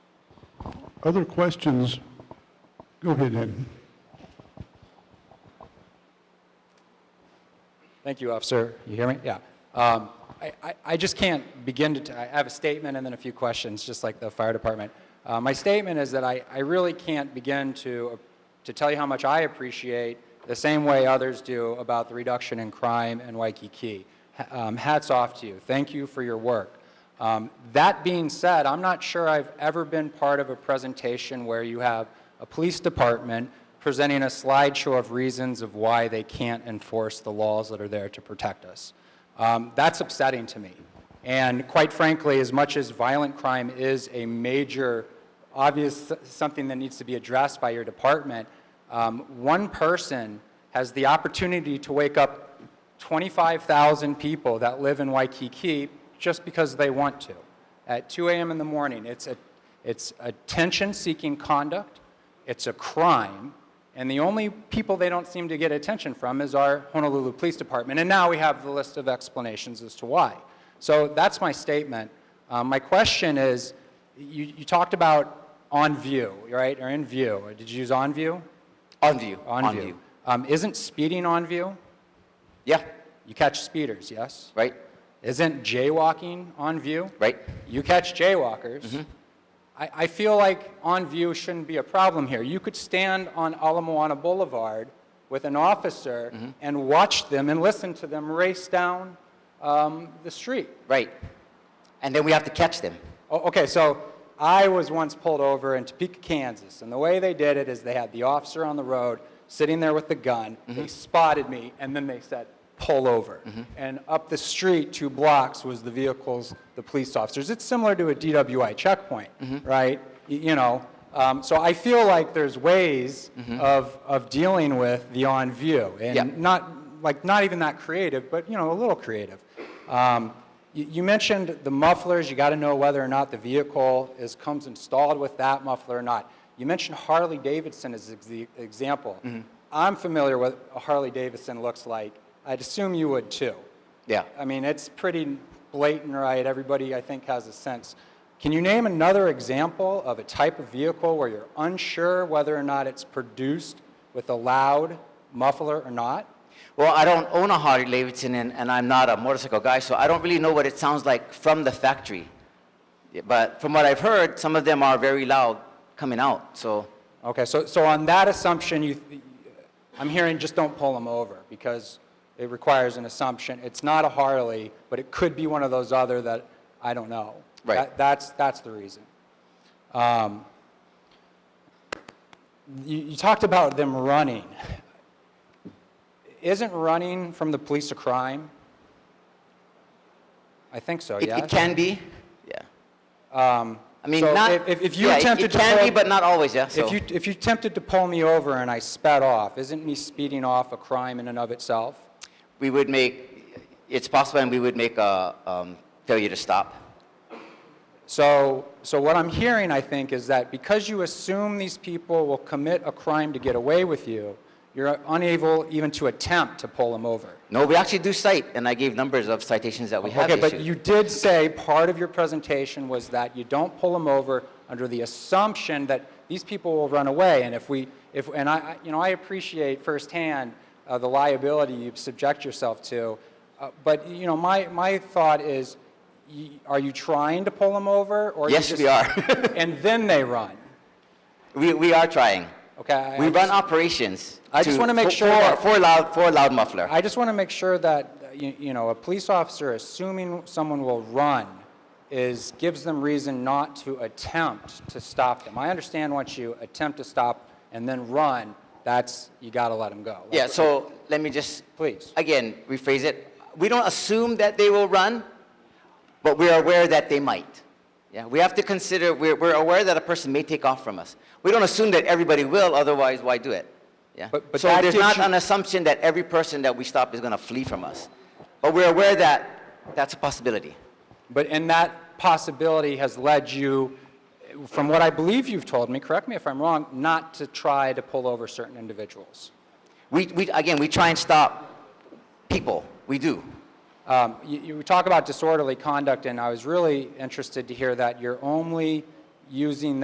Other questions? Go ahead, Ed. Thank you, officer. You hear me? Yeah. Um, I, I, I just can't begin to, t- I have a statement and then a few questions, just like the fire department. Uh, my statement is that I, I really can't begin to, to tell you how much I appreciate, the same way others do, about the reduction in crime in Waikiki. Ha- Um, hats off to you. Thank you for your work. Um, That being said, I'm not sure I've ever been part of a presentation where you have a police department presenting a slideshow of reasons of why they can't enforce the laws that are there to protect us. Um, That's upsetting to me. And quite frankly, as much as violent crime is a major, obvious, something that needs to be addressed by your department, um, one person has the opportunity to wake up 25,000 people that live in Waikiki just because they want to at 2 a.m. in the morning. It's, a, it's attention seeking conduct, it's a crime, and the only people they don't seem to get attention from is our Honolulu Police Department. And now we have the list of explanations as to why. So that's my statement. Um, my question is you, you talked about on view, right? Or in view. Did you use on view? On view. On, view. Um, isn't speeding on view? Yeah, You catch speeders, yes? right, Isn't jaywalking on view? right. Mm-hmm. You catch jaywalkers. I, I feel like on view shouldn't be a problem here. You could stand on Ala Moana Boulevard with an officer Mm-hmm. and watch them and listen to them race down um, the street. Right. And then we have to catch them. O- Oh, Okay, so I was once pulled over in Topeka, Kansas, and the way they did it is they had the officer on the road sitting there with the gun. They spotted me, and then they said, pull over. And up the street, two blocks, was the vehicles, the police officers. It's similar to a DWI checkpoint, right? Y- you know, um, so I feel like there's ways of, of dealing with the on view. And Yeah. not like not even that creative, but you know a little creative. Um, you, you mentioned the mufflers. You got to know whether or not the vehicle is comes installed with that muffler or not. You mentioned Harley Davidson as ex- the example. I'm familiar with what a Harley Davidson looks like. I'd assume you would too. Yeah. I mean, it's pretty blatant, right? Everybody, I think, has a sense. Can you name another example of a type of vehicle where you're unsure whether or not it's produced with a loud muffler or not? Well, I don't own a Harley Davidson and, and I'm not a motorcycle guy, so I don't really know what it sounds like from the factory. Yeah, But from what I've heard, some of them are very loud coming out. So, Okay, so, so on that assumption, you, I'm hearing just don't pull them over because it requires an assumption. It's not a Harley, but it could be one of those other that I don't know. Right. That- that's, that's the reason. Um, you, you talked about them running. Isn't running from the police a crime? I think so, it, yes? it can be. Yeah. Um, I mean, so not. if- If, if you yeah, it- attempted it to can pull- be, but not always, yeah. So. if you, if you attempted to pull me over and I sped off, isn't me speeding off a crime in and of itself? we would make, it's possible, and we would make a um, failure to stop. So, so what I'm hearing, I think, is that because you assume these people will commit a crime to get away with you, you're unable even to attempt to pull them over. No, we actually do cite, and I gave numbers of citations that we have Okay, but issued. you did say part of your presentation was that you don't pull them over under the assumption that these people will run away. And if we, if, and I, I- you know, I appreciate firsthand uh, the liability you subject yourself to. Uh, but you know, my my thought is, y- are you trying to pull them over, or you Yes, just- we are. and then they run. we, we are trying. Okay. I- we I run just- operations. I just wanna make for- sure for, that- for loud for loud muffler. I just want to make sure that, uh, you, you know, a police officer assuming someone will run is, gives them reason not to attempt to stop them. I understand once you attempt to stop and then run, that's, you got to let them go. yeah. So let me just Please. again rephrase it. We don't assume that they will run, but we are aware that they might. Yeah. We have to consider. We're, we're aware that a person may take off from us. We don't assume that everybody will. Otherwise, why do it? Yeah. But- but so that there's gives not you- an assumption that every person that we stop is going to flee from us, but we're aware that that's a possibility. But, and that possibility has led you, from what I believe you've told me, correct me if I'm wrong, not to try to pull over certain individuals. We, we, again, we try and stop people. We do. Um, You you talk about disorderly conduct, and I was really interested to hear that you're only using